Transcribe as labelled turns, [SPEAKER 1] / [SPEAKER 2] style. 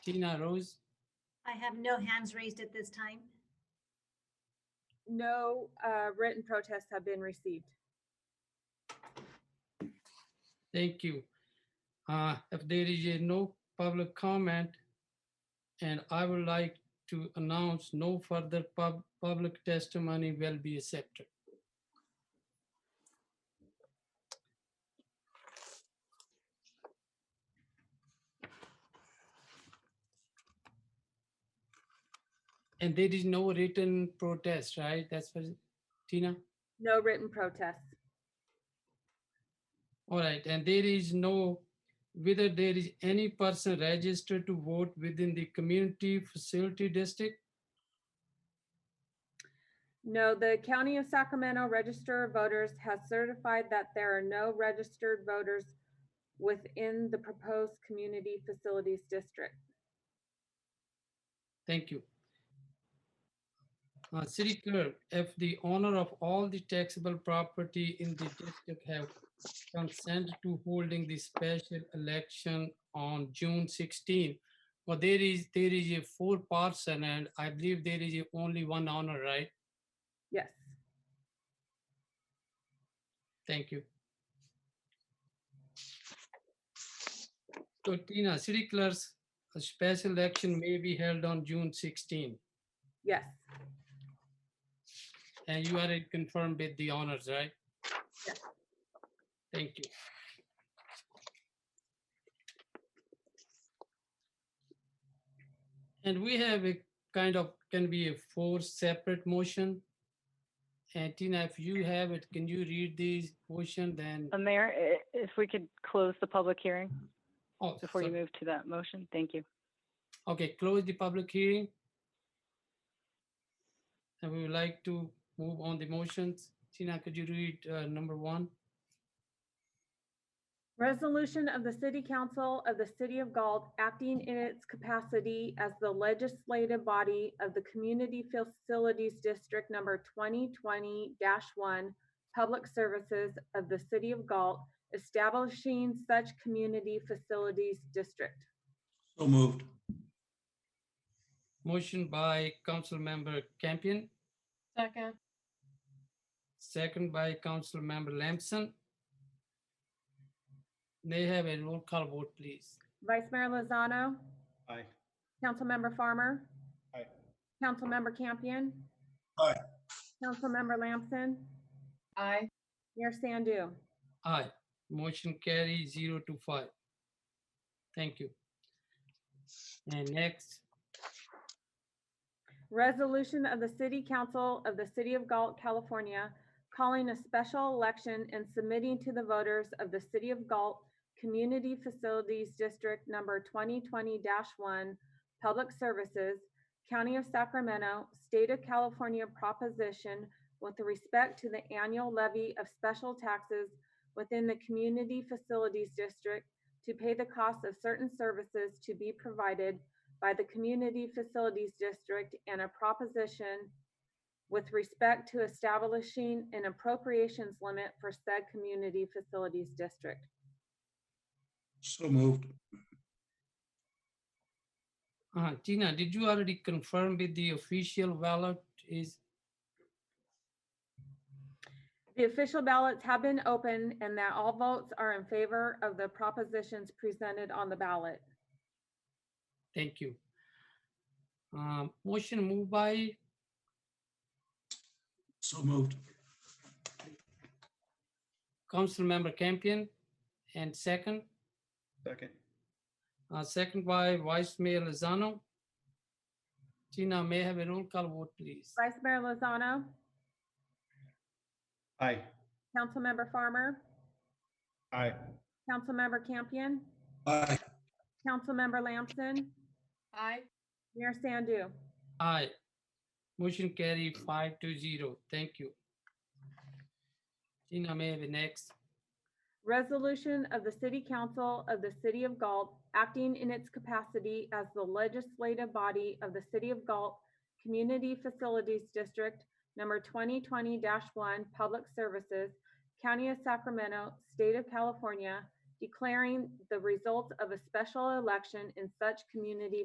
[SPEAKER 1] Tina Rose,
[SPEAKER 2] I have no hands raised at this time.
[SPEAKER 3] No uh, written protests have been received.
[SPEAKER 1] thank you. Uh, If there is a no public comment, and I would like to announce no further pub- public testimony will be accepted. And there is no written protest, right? That's what, Tina?
[SPEAKER 3] No written protests.
[SPEAKER 1] All right, and there is no, whether there is any person registered to vote within the community facility district?
[SPEAKER 3] No, the County of Sacramento Register of Voters has certified that there are no registered voters within the proposed community facilities district.
[SPEAKER 1] Thank you. Uh, city clerk, if the owner of all the taxable property in the district have consent to holding the special election on June 16, well, there is, there is a four person and I believe there is a only one owner, right?
[SPEAKER 3] Yes.
[SPEAKER 1] Thank you. So Tina, city clerk's a special election may be held on June 16,
[SPEAKER 3] Yes.
[SPEAKER 1] and you are confirmed with the honors, right?
[SPEAKER 3] Yes.
[SPEAKER 1] Thank you. And we have a kind of, can be a four separate motion. And Tina, if you have it, can you read these motion then?
[SPEAKER 4] Uh, Mayor, i- if we could close the public hearing
[SPEAKER 1] Oh,
[SPEAKER 4] before you
[SPEAKER 1] sorry.
[SPEAKER 4] move to that motion, thank you.
[SPEAKER 1] Okay, close the public hearing. And we would like to move on the motions. Tina, could you read uh, number one?
[SPEAKER 3] Resolution of the City Council of the City of Galt acting in its capacity as the legislative body of the Community Facilities District Number 2020-1, Public Services of the City of Galt, establishing such community facilities district.
[SPEAKER 5] So moved.
[SPEAKER 1] Motion by Council Member Campion,
[SPEAKER 6] Second,
[SPEAKER 1] second by Council Member Lamson. May I have a roll call vote, please.
[SPEAKER 3] Vice Mayor Lozano,
[SPEAKER 5] Aye.
[SPEAKER 3] Councilmember Farmer.
[SPEAKER 5] Aye.
[SPEAKER 3] Councilmember Campion.
[SPEAKER 5] Aye.
[SPEAKER 3] Councilmember Lamson,
[SPEAKER 6] aye.
[SPEAKER 3] Mayor Sandu.
[SPEAKER 1] Aye, motion carry zero to five. Thank you. And next,
[SPEAKER 3] Resolution of the City Council of the City of Galt, California, calling a special election and submitting to the voters of the City of Galt Community Facilities District Number 2020-1, Public Services, County of Sacramento, State of California proposition with respect to the annual levy of special taxes within the Community Facilities District to pay the cost of certain services to be provided by the Community Facilities District and a proposition with respect to establishing an appropriations limit for said Community Facilities District.
[SPEAKER 5] So moved.
[SPEAKER 1] uh, Tina, did you already confirm with the official ballot is
[SPEAKER 3] The official ballots have been open and that all votes are in favor of the propositions presented on the ballot.
[SPEAKER 1] Thank you. Um, Motion moved by,
[SPEAKER 5] So moved.
[SPEAKER 1] Council Member Campion, and second,
[SPEAKER 5] Second.
[SPEAKER 1] uh, second by Vice Mayor Lozano. Tina, may I have a roll call vote, please?
[SPEAKER 3] Vice Mayor Lozano,
[SPEAKER 5] Aye.
[SPEAKER 3] Councilmember Farmer,
[SPEAKER 5] Aye.
[SPEAKER 3] Councilmember Campion,
[SPEAKER 5] Aye.
[SPEAKER 3] Councilmember Lamson,
[SPEAKER 6] Aye.
[SPEAKER 3] Mayor Sandu.
[SPEAKER 1] Aye. Motion carry five to zero. Thank you. Tina, may I have the next?
[SPEAKER 3] Resolution of the City Council of the City of Galt acting in its capacity as the legislative body of the City of Galt Community Facilities District Number 2020-1 Public Services, County of Sacramento, State of California, declaring the results of a special election in such community